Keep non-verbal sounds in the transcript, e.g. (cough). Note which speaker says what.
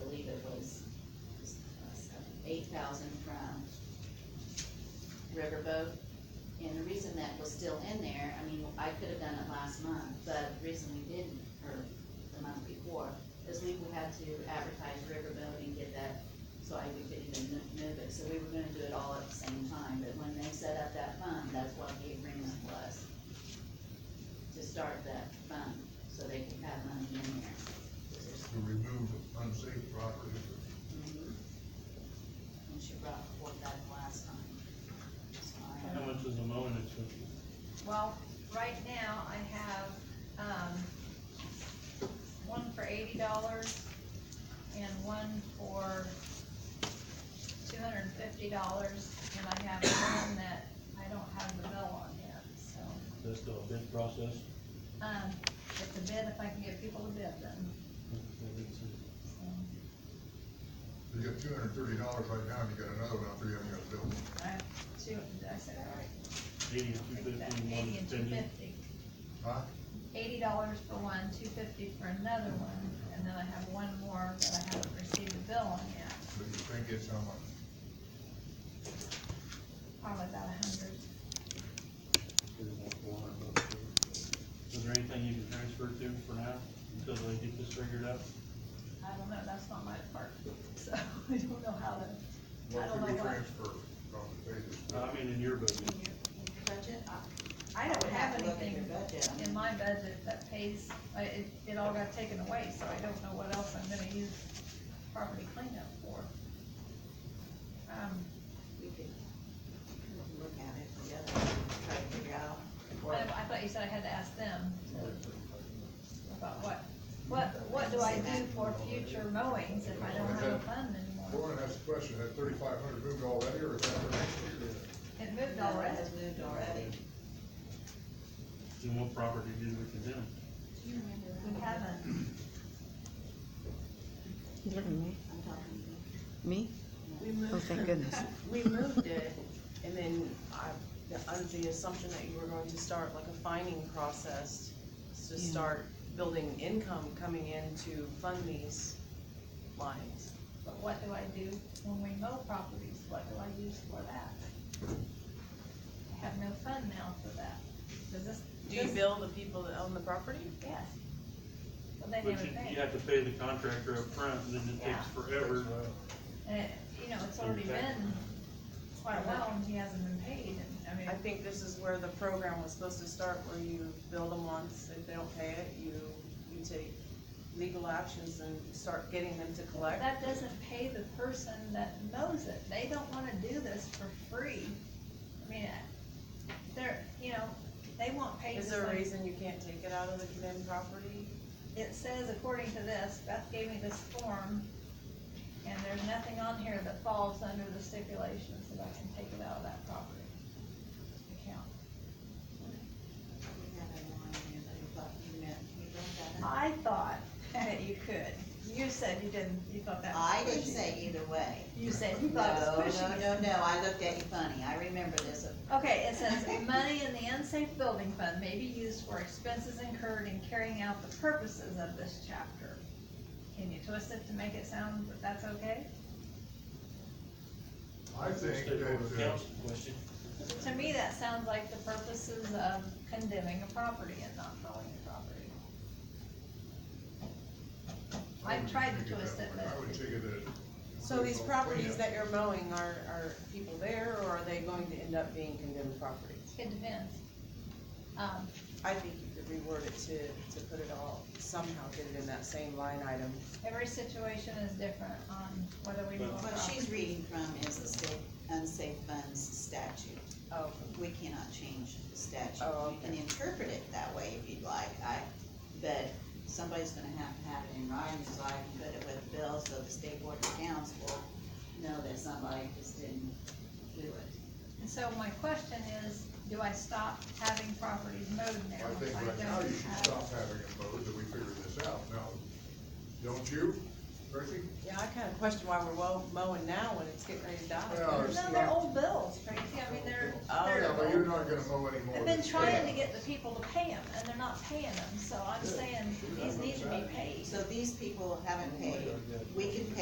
Speaker 1: uh, eight thousand from Riverboat. And the reason that was still in there, I mean, I could have done it last month, but the reason we didn't, or the month before, is we had to advertise Riverboat and get that, so I we could even mo- move it, so we were gonna do it all at the same time, but when they set up that fund, that's what the agreement was. To start that fund, so they could have money in there.
Speaker 2: to remove unsafe property.
Speaker 1: Mhm. And she brought forth that last time. So I-
Speaker 3: How much is the mowing it took?
Speaker 4: Well, right now I have, um, one for eighty dollars and one for two hundred and fifty dollars, and I have one that I don't have the bill on yet, so.
Speaker 3: That's the bid process?
Speaker 4: Um, it's a bid, if I can get people to bid then, so,
Speaker 2: You got two hundred and thirty dollars right now, and you got another one out there you haven't got a bill.
Speaker 4: I have two, did I say that right?
Speaker 3: Eighty and
Speaker 4: I
Speaker 3: two
Speaker 4: think
Speaker 3: fifty,
Speaker 4: that-
Speaker 3: and
Speaker 4: Eighty
Speaker 3: one
Speaker 4: and two
Speaker 3: ten.
Speaker 4: fifty.
Speaker 2: Huh?
Speaker 4: eighty dollars for one, two fifty for another one, and then I have one more that I haven't received a bill on yet,
Speaker 2: But you think it's how much?
Speaker 4: probably about a hundred.
Speaker 3: Is there anything you can transfer to for now, until they get this figured out?
Speaker 4: I don't know, that's not my part, so (laughs) I don't know how to, I
Speaker 2: What
Speaker 4: don't
Speaker 2: could we
Speaker 4: know what-
Speaker 2: transfer from the basis?
Speaker 3: I mean, in your
Speaker 1: In
Speaker 3: budget,
Speaker 1: your, in your budget, I,
Speaker 4: I
Speaker 1: I
Speaker 4: don't
Speaker 1: would
Speaker 4: have
Speaker 1: have to look at your
Speaker 4: anything
Speaker 1: budget. I
Speaker 4: in
Speaker 1: mean,
Speaker 4: my budget that pays, I- it, it all got taken away, so I don't know what else I'm gonna use property cleanup for. Um,
Speaker 1: we could look at it together, try to figure out.
Speaker 4: I,
Speaker 1: what-
Speaker 4: I thought you said I had to ask them about what, what, what do I do for future mowings if I don't have a fund anymore?
Speaker 2: Lauren has a question, that thirty-five hundred moved already, or is that for next year?
Speaker 4: It moved
Speaker 1: No, it
Speaker 4: already.
Speaker 1: has moved already.
Speaker 3: then what property did we condemn?
Speaker 1: Do you remember
Speaker 4: We haven't,
Speaker 5: You look at me.
Speaker 1: I'm talking to you.
Speaker 5: Me?
Speaker 6: We moved.
Speaker 5: Oh, thank goodness.
Speaker 6: (laughs) We moved it, and then I, the- under the assumption that you were going to start like a finding process to
Speaker 5: Yeah.
Speaker 6: start building income coming in to fund these lines.
Speaker 4: but what do I do when we mow properties? What do I use for that? I have no fund now for that. Does this?
Speaker 6: Do you
Speaker 4: this-
Speaker 6: bill the people that own the property?
Speaker 4: Yes. But they
Speaker 3: But
Speaker 4: never
Speaker 3: you, you
Speaker 4: pay.
Speaker 3: have to pay the contractor up front, and then it takes
Speaker 4: Yeah.
Speaker 3: forever.
Speaker 4: And, it- you know, it's already been quite a while and he hasn't been paid and, I mean,
Speaker 6: I think this is where the program was supposed to start, where you bill them once, if they don't pay it, you, you take legal actions and start getting them to collect.
Speaker 4: that doesn't pay the person that mows it. They don't wanna do this for free. I mean, I- they're, you know, they want paid.
Speaker 6: Is
Speaker 4: just
Speaker 6: there a
Speaker 4: like-
Speaker 6: reason you can't take it out of the condemned property?
Speaker 4: It says, according to this, Beth gave me this form, and there's nothing on here that falls under the stipulations that I can take it out of that property account.
Speaker 1: We have it on there, but we thought you meant, you looked at
Speaker 4: I thought that you could. You said you didn't, you thought
Speaker 1: it.
Speaker 4: that was
Speaker 1: I
Speaker 4: pushy.
Speaker 1: didn't say either way.
Speaker 4: You said you
Speaker 1: No,
Speaker 4: thought it was
Speaker 1: no,
Speaker 4: pushy.
Speaker 1: no, no, I looked at you funny, I remember this.
Speaker 4: Okay, it says, money in the unsafe building fund may be used for expenses incurred in carrying out the purposes of this chapter. Can you twist it to make it sound that that's okay?
Speaker 2: I think
Speaker 3: Stakeholder
Speaker 2: that, uh,
Speaker 3: council question.
Speaker 4: To me, that sounds like the purposes of condemning a property and not mowing a property. I
Speaker 2: would
Speaker 4: tried to
Speaker 2: take
Speaker 4: twist
Speaker 2: that
Speaker 4: it,
Speaker 2: way. I would
Speaker 4: but-
Speaker 2: take it that.
Speaker 6: So these
Speaker 2: Yeah.
Speaker 6: properties that you're mowing are, are people there, or are they going to end up being condemned properties?
Speaker 4: It depends. Um,
Speaker 6: I think you could reword it to, to put it all, somehow get it in that same line item.
Speaker 4: every situation is different on whether we mow a
Speaker 3: But-
Speaker 1: What
Speaker 4: property.
Speaker 1: she's reading from is the state unsafe funds statute.
Speaker 6: Oh.
Speaker 1: We cannot change the statute.
Speaker 6: Oh,
Speaker 1: You can
Speaker 6: okay.
Speaker 1: interpret it that way if you'd like, I, but somebody's gonna have to have it in writing, so I can put it with bills, so the state board of accounts will know that somebody just didn't do it.
Speaker 4: And so my question is, do I stop having properties mowed
Speaker 2: I
Speaker 4: now?
Speaker 2: think right now
Speaker 4: don't
Speaker 2: you should
Speaker 4: have-
Speaker 2: stop having it mowed, that we figure this out. Now, don't you, Tracy?
Speaker 6: Yeah, I kinda question why we're wo- mowing now when it's getting ready to
Speaker 2: Yeah,
Speaker 6: die.
Speaker 2: it's-
Speaker 4: No, they're old bills, Tracy, I mean, they're,
Speaker 6: Oh,
Speaker 4: they're.
Speaker 2: Yeah, but you're not gonna mow anymore.
Speaker 4: I've been trying to get the people to pay them, and they're not paying them, so I'm saying these need to be paid.
Speaker 1: So these people haven't paid, we can